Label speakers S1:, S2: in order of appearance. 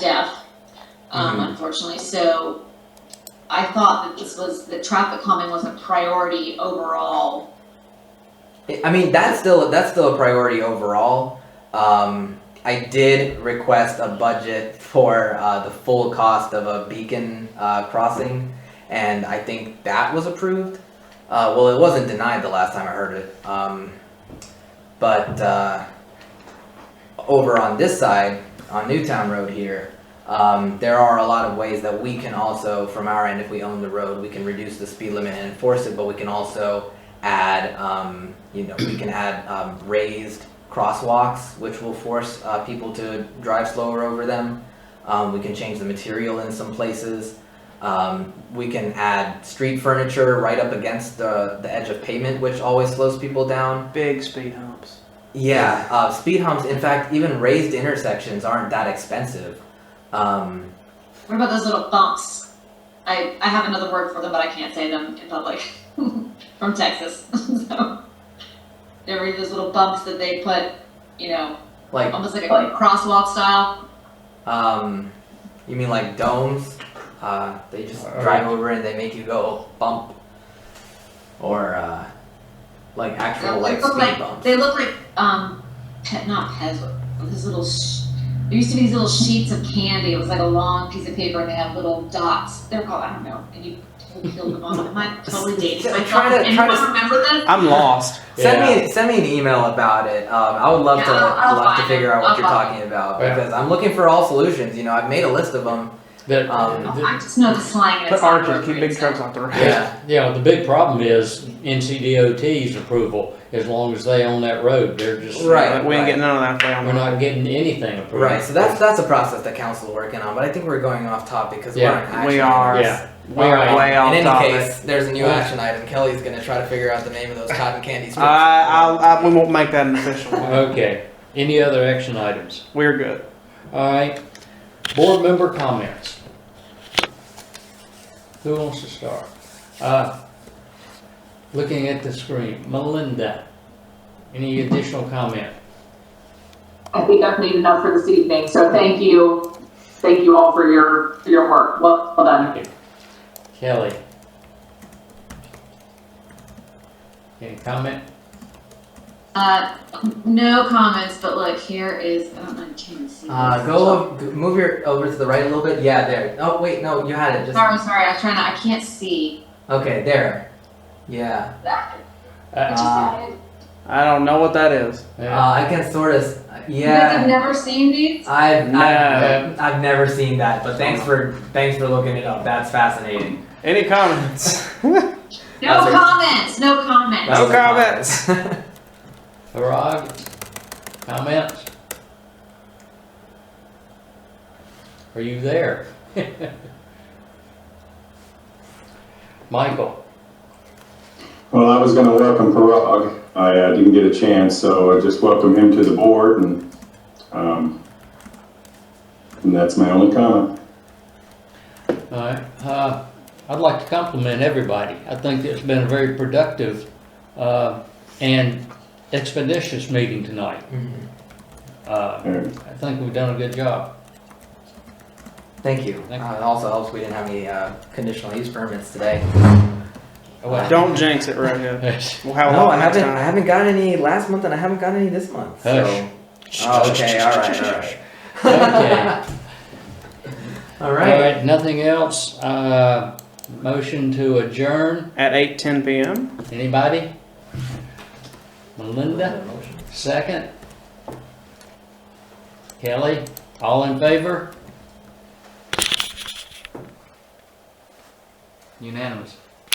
S1: um,
S2: Mhm.
S1: unfortunately, so I thought that this was, that traffic calming was a priority overall.
S2: I mean, that's still that's still a priority overall. Um, I did request a budget for uh, the full cost of a beacon uh, crossing, and I think that was approved. Uh, well, it wasn't denied the last time I heard it. Um, but uh, over on this side, on Newtown Road here, um, there are a lot of ways that we can also, from our end, if we own the road, we can reduce the speed limit and enforce it, but we can also add, um, you know, we can add um, raised crosswalks, which will force uh, people to drive slower over them. Um, we can change the material in some places. Um, we can add street furniture right up against the, the edge of pavement, which always slows people down.
S3: Big speed humps.
S2: Yeah, uh, speed humps. In fact, even raised intersections aren't that expensive. Um,
S1: What about those little bumps? I, I have another word for them, but I can't say them in public, from Texas, so. There were those little bumps that they put, you know,
S2: like,
S1: almost like a crosswalk style,
S2: um, you mean like domes? Uh, they just
S4: Uh,
S2: drive over and they make you go bump, or uh, like actual
S1: They
S2: like
S1: look
S2: speed
S1: like-
S2: bumps.
S1: they look like, um, pet, not pets, but these little sh- there used to be these little sheets of candy, it was like a long piece of paper and they had little dots, they're called, I don't know, and you peeled them off, am I totally dating myself?
S2: Try to- try to-
S1: Anyone remember this?
S3: I'm lost.
S2: Send me send me an email about it. Um, I would love to
S1: Yeah, I'll- I'll
S2: love to
S1: find
S2: figure
S1: it.
S2: out what
S1: I'll
S2: you're
S1: find
S2: talking about
S4: Yeah.
S2: because I'm looking for all solutions. You know, I've made a list of them.
S4: That,
S2: Um,
S1: Oh,
S4: the-
S1: I just know the slang and
S3: Put
S1: it's not
S3: arches, keep big
S1: appropriate, so-
S3: trucks off the road.
S2: Yeah.
S4: Yeah, the big problem is NCDOT's approval, as long as they own that road, they're just.
S2: Right.
S3: Like, we ain't getting none of that down.
S4: We're not getting anything approved.
S2: Right. So that's that's a process that council's working on. But I think we're going off topic because
S4: Yeah.
S2: we're on action.
S3: We are.
S2: items.
S4: Yeah.
S3: We are
S4: Alright.
S3: way off
S2: In any
S3: topic.
S2: case, there's a new
S4: Well-
S2: action item. Kelly's gonna try to figure out the name of those cotton candy strips.
S3: I, I, I, we won't make that an official. one.
S4: Okay, any other action items?
S3: We're good.
S4: Alright, board member comments. Who wants to start? Uh, looking at the screen, Melinda, any additional comment?
S5: I think I've made enough for this evening, so thank you. Thank you all for your, for your work. Well well done.
S4: Kelly? Any comment?
S1: Uh, no comments, but look, here is, I don't know, I can't even see.
S2: Uh,
S1: this.
S2: go over- g- move your over to the right a little bit. Yeah, there. Oh wait, no, you had it. Just
S1: Sorry, sorry, I was trying to, I can't see.
S2: okay, there. Yeah.
S4: Uh,
S2: Uh,
S3: I don't know what that is.
S2: uh, I can sort of.
S1: You guys
S2: Yeah.
S1: have never seen these?
S2: I've,
S3: No.
S2: I've I've never seen that, but thanks for thanks for looking it up. That's fascinating.
S3: Any comments?
S1: No
S2: That's a-
S1: comments, no comments.
S2: That was a
S3: comments.
S2: comment.
S4: Parag, comments? Are you there? Michael,
S6: Well, I was going to welcome Parag. I uh, didn't get a chance, so I just welcome him to the board, and, um, and that's my only comment.
S4: alright, uh, I'd like to compliment everybody. I think it's been a very productive, uh, and expeditious meeting tonight.
S2: Mhm.
S4: Uh, I think we've done a good job.
S2: Thank you.
S4: Thank you.
S2: Uh, it also helps we didn't have any uh, conditional use permits today.
S4: Well,
S3: Don't jinx it, right here.
S4: Hush.
S3: We'll have a
S2: no,
S3: lot
S2: I
S3: next
S2: haven't. I
S3: time.
S2: haven't gotten any last month, and I haven't gotten any this month. So. Oh, okay. All right. All right.
S4: Okay.
S2: All
S4: All
S2: right.
S4: right, nothing else. Uh, motion to adjourn.
S3: At eight ten p.m.
S4: Anybody? Melinda, second. Kelly, all in favor? Unanimous.